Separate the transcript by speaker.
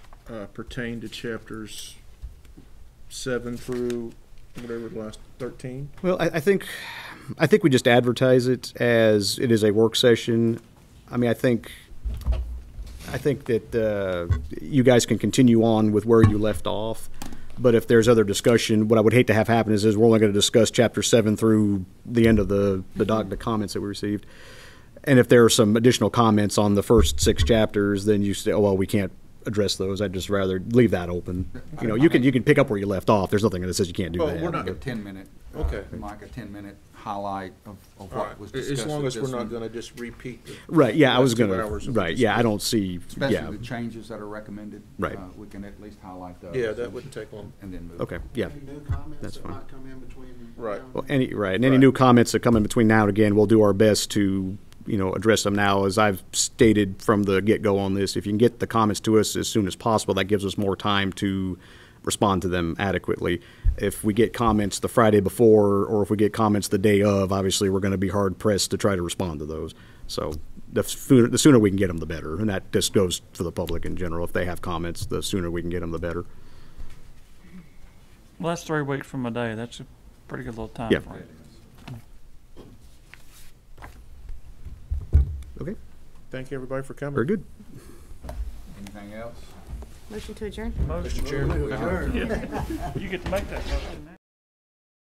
Speaker 1: uh, pertain to chapters seven through whatever the last thirteen.
Speaker 2: Well, I, I think, I think we just advertise it as it is a work session. I mean, I think, I think that uh, you guys can continue on with where you left off. But if there's other discussion, what I would hate to have happen is, is we're only going to discuss chapter seven through the end of the, the doc, the comments that we received. And if there are some additional comments on the first six chapters, then you say, oh, well, we can't address those. I'd just rather leave that open. You know, you can, you can pick up where you left off. There's nothing that says you can't do
Speaker 1: Well,
Speaker 2: that.
Speaker 1: we're not-
Speaker 3: Like a ten-minute.
Speaker 1: Okay.
Speaker 3: Like a ten-minute highlight of, of
Speaker 1: All right,
Speaker 3: what was discussed.
Speaker 1: as long
Speaker 3: at
Speaker 1: as we're
Speaker 3: this
Speaker 1: not
Speaker 3: one,
Speaker 1: gonna just repeat. the-
Speaker 2: Right, yeah, I
Speaker 1: last
Speaker 2: was
Speaker 1: two
Speaker 2: gonna,
Speaker 1: hours of
Speaker 2: right, yeah, I don't see, yeah,
Speaker 3: Especially the changes that are recommended.
Speaker 2: Right.
Speaker 3: uh, We can at least highlight those.
Speaker 1: Yeah, that wouldn't take long.
Speaker 3: And then move.
Speaker 2: okay, yeah.
Speaker 4: Any new comments
Speaker 2: That's
Speaker 4: that
Speaker 2: fine.
Speaker 4: might come in between?
Speaker 1: Right.
Speaker 4: now and
Speaker 2: Well,
Speaker 4: then?
Speaker 2: any, right, and any
Speaker 1: Right.
Speaker 2: new comments that come in between now and again, we'll do our best to, you know, address them now. As I've stated from the get-go on this, if you can get the comments to us as soon as possible, that gives us more time to respond to them adequately. If we get comments the Friday before, or if we get comments the day of, obviously, we're gonna be hard-pressed to try to respond to those. So the sooner, the sooner we can get them, the better, and that just goes for the public in general. If they have comments, the sooner we can get them, the better.
Speaker 5: Well, that's three weeks from a day. That's a pretty good little time
Speaker 2: Yeah.
Speaker 5: frame.
Speaker 2: Okay,
Speaker 1: Thank you, everybody, for coming.
Speaker 2: very good.
Speaker 3: Anything else?
Speaker 6: Motion to adjourn?
Speaker 5: Motion.
Speaker 1: Mr. Chairman.
Speaker 5: You get to make that motion now.